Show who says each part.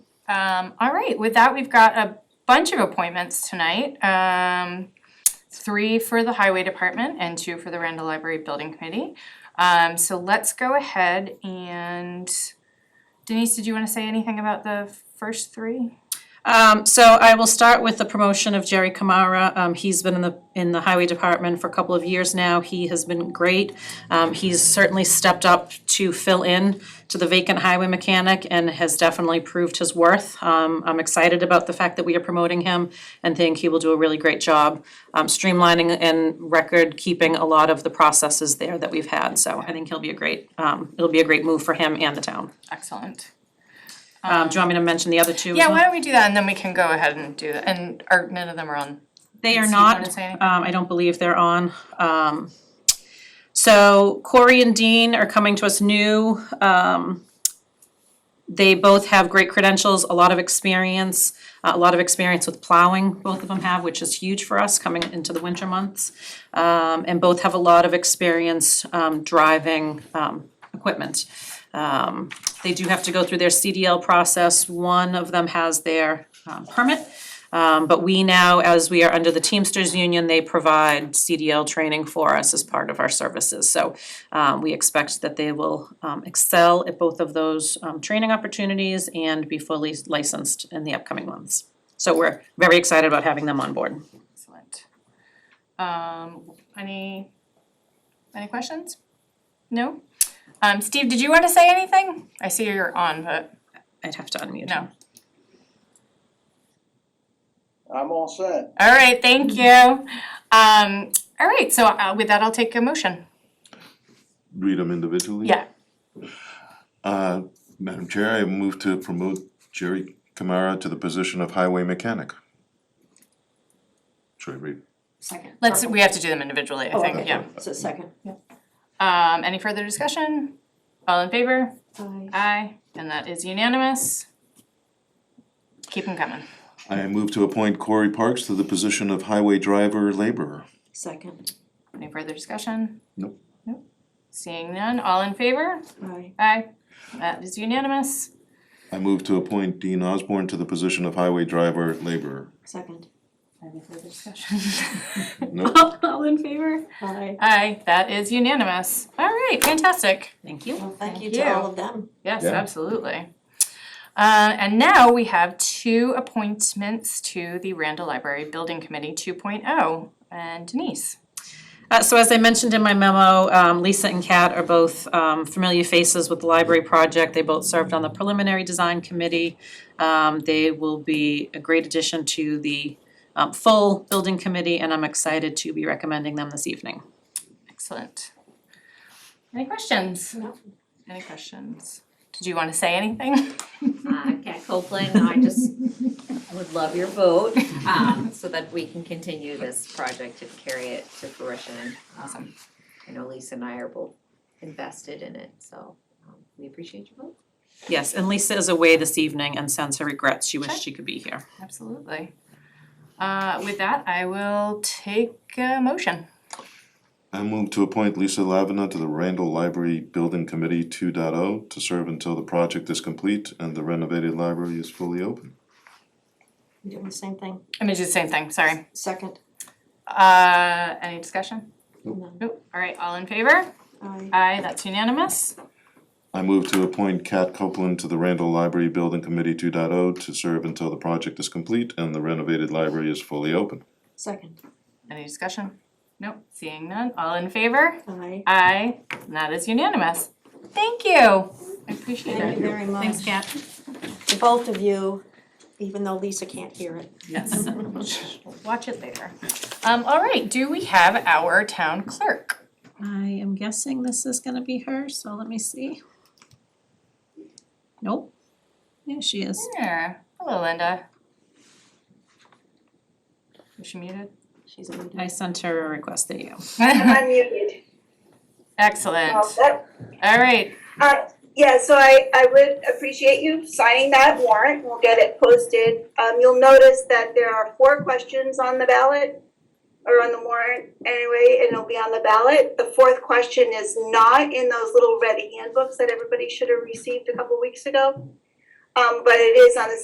Speaker 1: Um, all right, with that, we've got a bunch of appointments tonight. Um, three for the highway department and two for the Randall Library Building Committee. Um, so let's go ahead and Denise, did you wanna say anything about the first three?
Speaker 2: Um, so I will start with the promotion of Jerry Kamara. Um, he's been in the, in the highway department for a couple of years now. He has been great. Um, he's certainly stepped up to fill in to the vacant highway mechanic and has definitely proved his worth. Um, I'm excited about the fact that we are promoting him and think he will do a really great job, um, streamlining and record keeping a lot of the processes there that we've had. So I think he'll be a great, um, it'll be a great move for him and the town.
Speaker 1: Excellent.
Speaker 2: Um, do you want me to mention the other two? as
Speaker 1: Yeah,
Speaker 2: well?
Speaker 1: why don't we do that and then we can go ahead and do that, and, or none of them are on.
Speaker 2: They are
Speaker 1: Steve wanna
Speaker 2: not,
Speaker 1: say anything?
Speaker 2: um, I don't believe they're on. Um, so Corey and Dean are coming to us new. Um, they both have great credentials, a lot of experience, a lot of experience with plowing, both of them have, which is huge for us coming into the winter months. Um, and both have a lot of experience, um, driving, um, equipment. Um, they do have to go through their CDL process. One of them has their, um, permit. Um, but we now, as we are under the Teamsters Union, they provide CDL training for us as part of our services. So um, we expect that they will um, excel at both of those um, training opportunities and be fully licensed in the upcoming months. So we're very excited about having them on board.
Speaker 1: Excellent. Um, any, any questions? No? Um, Steve, did you want to say anything? I see you're on, but
Speaker 2: I'd have to unmute.
Speaker 1: no.
Speaker 3: I'm all set.
Speaker 1: All right, thank you. Um, all right, so uh, with that, I'll take a motion.
Speaker 4: read them individually?
Speaker 1: Yeah,
Speaker 4: Uh, Madam Chair, I move to promote Jerry Kamara to the position of highway mechanic. Should I read?
Speaker 5: Second.
Speaker 1: let's, we have to do them individually, I
Speaker 5: Oh,
Speaker 1: think,
Speaker 5: okay.
Speaker 1: yeah.
Speaker 5: So second.
Speaker 1: Um, any further discussion? All in favor?
Speaker 5: Aye.
Speaker 1: Aye, and that is unanimous. Keep them coming.
Speaker 4: I move to appoint Corey Parks to the position of highway driver laborer.
Speaker 5: Second.
Speaker 1: Any further discussion?
Speaker 4: Nope.
Speaker 1: Nope. Seeing none, all in favor?
Speaker 5: Aye.
Speaker 1: Aye, that is unanimous.
Speaker 4: I move to appoint Dean Osborne to the position of highway driver laborer.
Speaker 5: Second.
Speaker 1: Any further discussion?
Speaker 4: Nope.
Speaker 1: All in favor?
Speaker 5: Aye.
Speaker 1: Aye, that is unanimous. All right, fantastic.
Speaker 2: Thank you.
Speaker 5: Well, thank you
Speaker 1: Thank you.
Speaker 5: to all of them.
Speaker 1: Yes,
Speaker 4: Yeah.
Speaker 1: absolutely. Uh, and now we have two appointments to the Randall Library Building Committee 2.0. And Denise,
Speaker 2: Uh, so as I mentioned in my memo, um, Lisa and Kat are both, um, familiar faces with the library project. They both served on the preliminary design committee. Um, they will be a great addition to the, um, full building committee, and I'm excited to be recommending them this evening.
Speaker 1: excellent. Any questions?
Speaker 5: No.
Speaker 1: Any questions? Did you want to say anything?
Speaker 6: Uh, Kat Copeland, I just would love your vote, um, so that we can continue this project and carry it to fruition. Awesome. I know Lisa and I are both invested in it, so, um, we appreciate your vote.
Speaker 2: Yes, and Lisa is away this evening and sends her regrets. She wished she could be here.
Speaker 1: Absolutely. Uh, with that, I will take a motion.
Speaker 4: I move to appoint Lisa Lavina to the Randall Library Building Committee 2.0 to serve until the project is complete and the renovated library is fully open.
Speaker 5: You doing the same thing?
Speaker 1: I mean, do the same thing, sorry.
Speaker 5: Second.
Speaker 1: Uh, any discussion?
Speaker 5: No.
Speaker 1: Nope. All right, all in favor?
Speaker 5: Aye.
Speaker 1: Aye, that's unanimous.
Speaker 4: I move to appoint Kat Copeland to the Randall Library Building Committee 2.0 to serve until the project is complete and the renovated library is fully open.
Speaker 5: Second.
Speaker 1: Any discussion? Nope, seeing none, all in favor?
Speaker 5: Aye.
Speaker 1: Aye, and that is unanimous. Thank you, I appreciate
Speaker 5: Thank
Speaker 1: it.
Speaker 5: you very much.
Speaker 2: Thanks, Kat.
Speaker 5: To both of you, even though Lisa can't hear it.
Speaker 1: Yes, watch it later. Um, all right, do we have our town clerk?
Speaker 2: I am guessing this is gonna be her, so let me see. Nope. There she is.
Speaker 1: There, hello Linda. Is she muted?
Speaker 5: She's a leader.
Speaker 2: I sent her a request. There you go.
Speaker 7: I'm unmuted.
Speaker 1: Excellent,
Speaker 7: Oh, that-
Speaker 1: all right,
Speaker 7: uh, Yeah, so I, I would appreciate you signing that warrant. We'll get it posted. Um, you'll notice that there are four questions on the ballot or on the warrant anyway, and it'll be on the ballot. The fourth question is not in those little red handbooks that everybody should have received a couple weeks ago. Um, but it is on the